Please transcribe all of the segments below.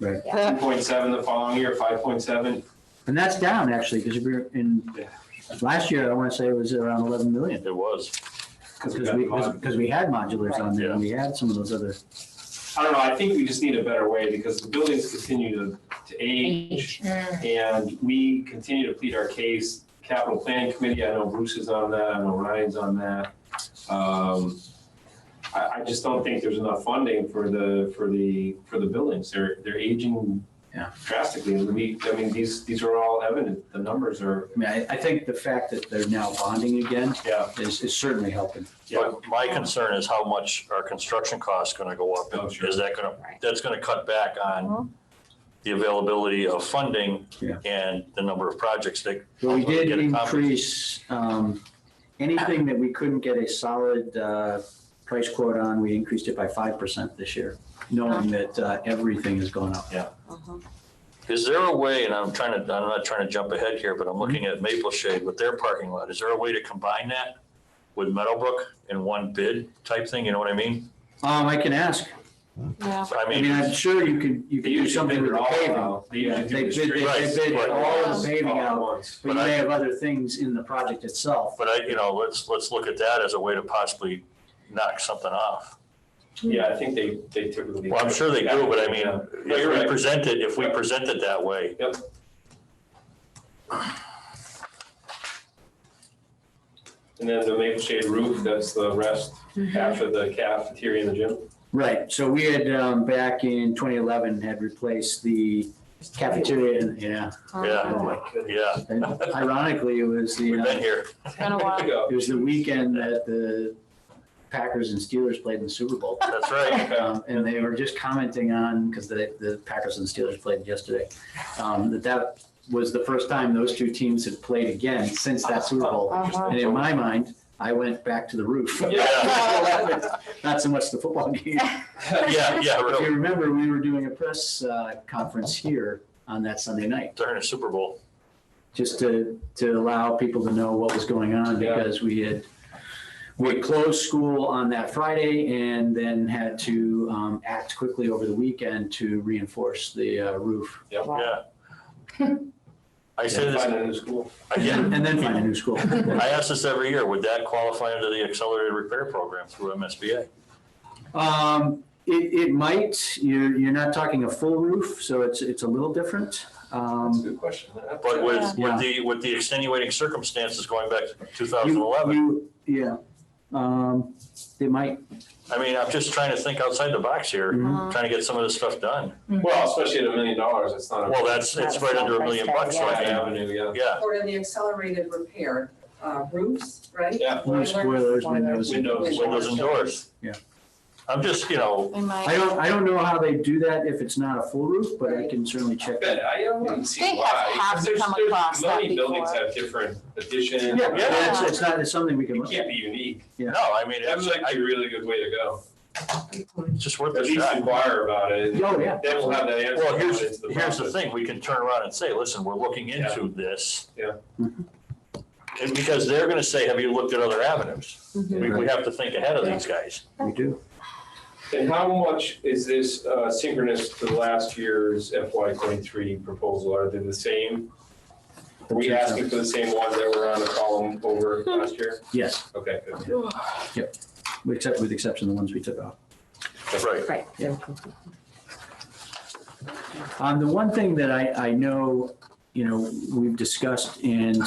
Right. Two point seven the following year, five point seven. And that's down actually, because we were in, Yeah. last year, I want to say it was around 11 million. It was. Because we, because we had modulars on there and we had some of those other, I don't know, I think we just need a better way because the buildings continue to, to age. And we continue to plead our case. Capital Planning Committee, I know Bruce is on that, I know Ryan's on that. Um, I, I just don't think there's enough funding for the, for the, for the buildings. They're, they're aging Yeah. drastically. And we, I mean, these, these are all evident. The numbers are, I mean, I, I think the fact that they're now bonding again yeah, is, is certainly helping. yeah. But my concern is how much our construction costs gonna go up. Oh, sure. Is that gonna, Right. Uh-huh. that's gonna cut back on the availability of funding Yeah. and the number of projects that. But we did Get it covered. increase, um, anything that we couldn't get a solid, uh, price quote on, we increased it by 5% this year, knowing that, uh, everything has gone up. Is there a way, and I'm trying to, I'm not trying to jump ahead here, but I'm looking at Maple Shade with their parking lot. Is there a way to combine that with Meadowbrook in one bid type thing? You know what I mean? Um, I can ask. Yeah. I I mean, mean, I'm sure you could, you could They do usually something bid with it the all uh, paving. out. They usually They do the bid, streets they Right, bid right. all of the paving all at out, once. but you may have other things in the project itself. but I, you know, let's, let's look at that as a way to possibly knock something off. Yeah, I think they, they typically. Well, I'm sure they do, but I mean, Yeah. No, you're if we right. present it, if we present it that way. Yep. And then the Maple Shade roof, that's the rest Mm-hmm. after the cafeteria and the gym. Right, so we had, um, back in twenty eleven, had replaced the cafeteria, and yeah. Oh, Yeah. Yeah, And Ironically, it was the, we've uh, been here. been a while. Go. it was the weekend that the Packers and Steelers played in the Super Bowl. That's right. Okay. Um, and they were just commenting on, because the, the Packers and Steelers played yesterday, um, that that was the first time those two teams had played again since that Super Bowl. And in my mind, I went back to the roof. Yeah. Not so much the football game. Yeah, yeah, If really, you remember, we were doing a press, uh, conference here on that Sunday night, during the Super Bowl. just to, to allow people to know what was going on, Yeah. because we had, we closed school on that Friday and then had to, um, act quickly over the weekend to reinforce the, uh, roof. Yeah. I say this, Find a new school. again, And then find a new school. I ask this every year, would that qualify under the accelerated repair program through MSBA? Um, it, it might, you're, you're not talking a full roof, so it's, it's a little different. That's a Um, good question. But with, Yeah. with the, with the extenuating circumstances going back to two thousand you- eleven, you- Yeah, um, it might, I mean, I'm just trying to think outside the box here, mhm. Mm-hmm. trying to get some of this stuff done. Well, especially at a million dollars, it's not a. Well, that's, it's right under a million bucks, so Bad I mean, Avenue, yeah. yeah. Or in the accelerated repair, uh, roofs, right? Yeah. More spoilers, windows. Windows. Windows and doors. Yeah. I'm just, you know, They I might, don't, I don't know how they do that if it's not a full roof, but I can certainly I check that. bet, I don't see They have- why. 'cause have there's- come there's- across that Many buildings before. have different additions. Yeah, it's, it's not, it's something we can It look can't at. be unique. no, I mean, That it's, was actually a I, really good way to go. it's just worth At a least shot. inquire about it. Oh, yeah. Then we'll have that answer. Well, here's, when it's here's the process. thing, we can turn around and say, listen, we're looking Yeah. into this. Mm-hmm. Yeah. And because they're gonna say, have you looked at other avenues? We, we have to think ahead of these guys. We do. And how much is this uh, synchronous to last year's FY twenty-three proposal? Are they the same? Are we asking for the same ones that were on the column over last year? Yes, Okay. good. except with exception of the ones we took out. Right. Right. Um, the one thing that I, I know, you know, we've discussed and,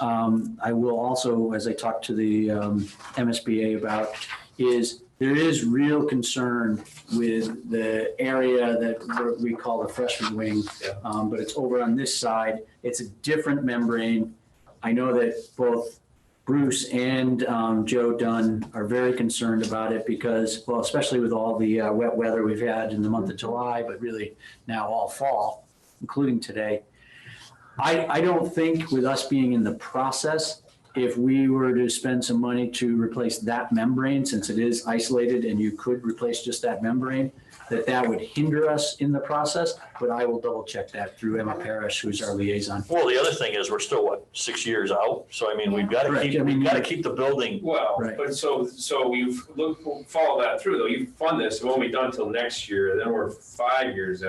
um, I will also, as I talk to the, um, MSBA about, is there is real concern with the area that we're- we call the freshman wing. Yeah. Um, but it's over on this side. It's a different membrane. I know that both Bruce and, um, Joe Dunn are very concerned about it because, well, especially with all the, uh, wet weather we've had in the month of July, but really now all fall, including today. I, I don't think with us being in the process, if we were to spend some money to replace that membrane, since it is isolated and you could replace just that membrane, that that would hinder us in the process, but I will double check that through Emma Parrish, who's our liaison. Well, the other thing is, we're still, what, six years out? So I mean, we've gotta Correct. I keep, mean, we've gotta you- keep the building, Well, Right. but so, so you've, look, follow that through though. You fund this, it won't be done till next year, then we're five years out.